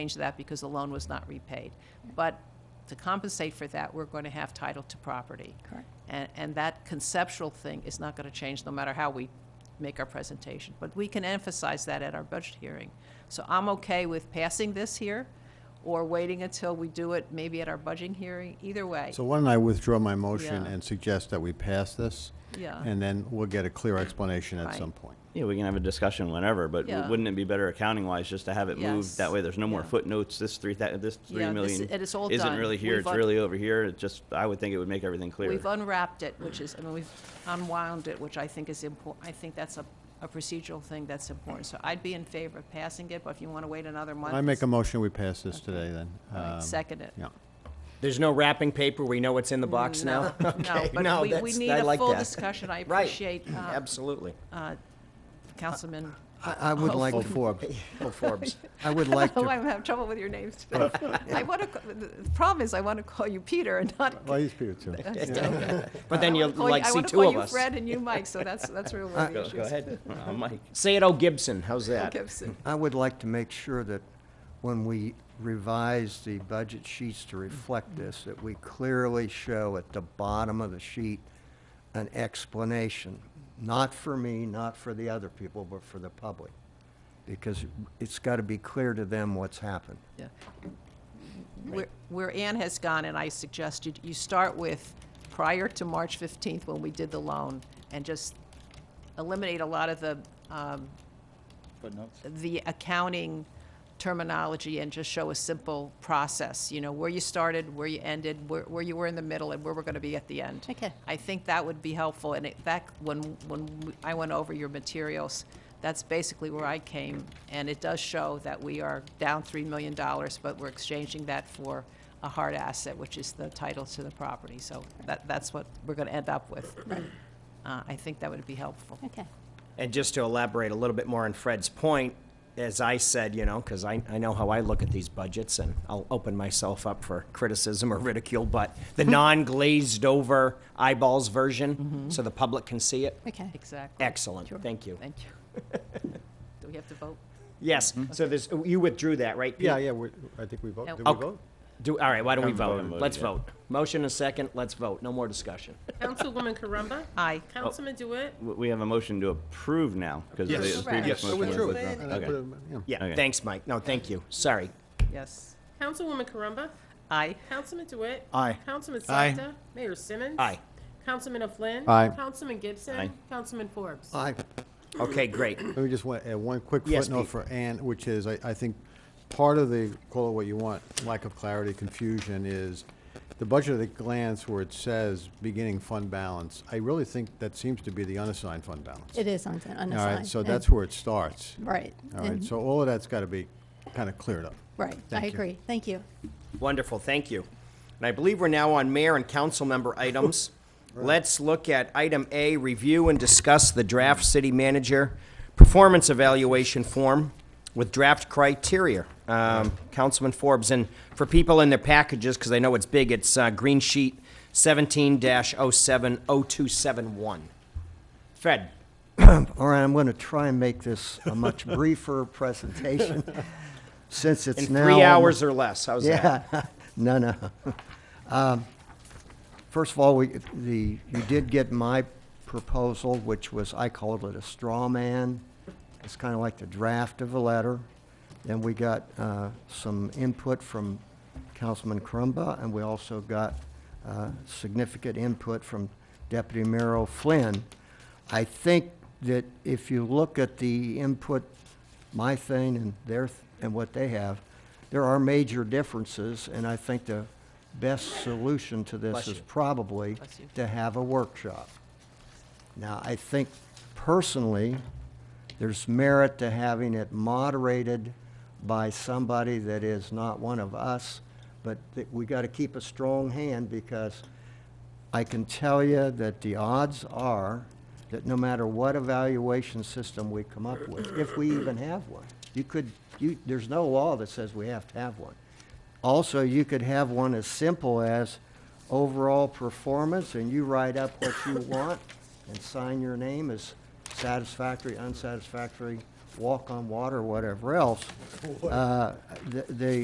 change that because the loan was not repaid. But to compensate for that, we're going to have title to property. Correct. And, and that conceptual thing is not going to change no matter how we make our presentation. But we can emphasize that at our budget hearing. So I'm okay with passing this here or waiting until we do it maybe at our budgeting hearing, either way. So why don't I withdraw my motion Yeah. and suggest that we pass this? Yeah. And then we'll get a clear explanation at Right. some point. Yeah, we can have a discussion whenever, but w- Yeah. wouldn't it be better accounting-wise just to have it Yes. moved? That way, there's no more Yeah. footnotes, this three, thou- this three Yeah, this million is- it is all isn't done. really here, We've it's un- really over here, it just, I would think it would make everything clear. We've unwrapped it, which is, I mean, we've unwound it, which I think is important, I think that's a, a procedural thing that's important. So I'd be in favor of passing it, but if you want to wait another month. I make a motion, we pass this today then. All right, Um, second it. Yeah. There's no wrapping paper. We know what's in the box now. Mm, No, Okay, No, but we, we that's- need I a like full that. discussion. I Right. appreciate, uh, Absolutely. Councilman, I, I would like, Oh, Forbes. Well, Forbes. I would like oh, to, I'm having trouble with your names today. I want to, the problem is I want to call you Peter and not. Well, he's Peter too. I'm joking. But then I you'll wanna call you- like I see wanna two of call you us. Fred and you Mike, so that's, that's really where the Go issue go is. ahead, Uh, Mike. Say it, O Gibson. How's that? Gibson. I would like to make sure that when we revise the budget sheets to reflect this, that we clearly show at the bottom of the sheet an explanation, not for me, not for the other people, but for the public. Because it's got to be clear to them what's happened. Yeah. Where- Where Ann has gone, and I suggested, you start with prior to March 15th, when we did the loan, and just eliminate a lot of the, um, the accounting terminology and just show a simple process, you know, where you started, where you ended, where, where you were in the middle, and where we're going to be at the end. Okay. I think that would be helpful, and it, that, when, when we- I went over your materials, that's basically where I came, and it does show that we are down $3 million, but we're exchanging that for a hard asset, which is the title to the property, so that, that's what we're gonna end up with. Uh, I think that would be helpful. Okay. And just to elaborate a little bit more on Fred's point, as I said, you know, because I, I know how I look at these budgets, and I'll open myself up for criticism or ridicule, but the non-glazed over eyeballs Mm-hmm. version, so the public can see it. Okay. Exactly. Excellent. Thank you. Thank you. Do we have to vote? Yes, Mm-hmm. so there's, you withdrew that, right? Pete? Yeah, yeah, we, I think we vote, No. did we Okay. vote? Do, all right, why don't we vote? Haven't voted Let's yet. vote. Motion and second, let's vote. No more discussion. Councilwoman Caramba? Aye. Councilman Dewitt? W- We have a motion to approve now, because the the Yes, previous I motion was withdrew it. withdrawn. And I Okay. put it- yeah. Yeah, Okay. thanks, Mike. No, thank you. Sorry. Yes. Councilwoman Caramba? Aye. Councilman DeWitt? Aye. Councilman Aye. Sakta? Mayor Simmons? Aye. Councilman O'Flynn? Aye. Councilman Gibson? Aye. Councilman Forbes? I, Okay, great. Let me just want, add one quick Yes, footnote Pete. for Ann, which is, I, I think, part of the, call it what you want, lack of clarity, confusion is the budget at a glance where it says beginning fund balance, I really think that seems to be the unassigned fund balance. It is on unassigned. All right, so and- that's where it starts. Right. All right, and- so all of that's got to be kind of cleared up. Right, I Thank you. agree. Thank you. Wonderful, thank you. And I believe we're now on mayor and council member items. Let's look at item A, review and discuss the draft city manager performance evaluation form with draft criteria. Um, Councilman Forbes, and for people in their packages, because I know it's big, it's uh, green sheet seventeen 7 oh seven oh two seven one. Fred, All right, I'm going to try and make this a much briefer presentation, since it's in now. three almost- hours or less, how's that? Yeah, no, no. Um, First of all, we, the, you did get my proposal, which was, I called it a straw man. It's kind of like the draft of a letter. Then we got uh, some input from Councilman Crumba, and we also got uh, significant input from Deputy Mayor O'Flynn. I think that if you look at the input, my thing and their, th- and what they have, there are major differences, and I think the best solution to this Bless is you. probably Bless you. to have a workshop. Now, I think personally, there's merit to having it moderated by somebody that is not one of us, but that we got to keep a strong hand because I can tell you that the odds are that no matter what evaluation system we come up with, if we even have one, you could, you, there's no law that says we have to have one. Also, you could have one as simple as overall performance, and you write up what you want and sign your name as satisfactory, unsatisfactory, walk on water, whatever else, uh, the, the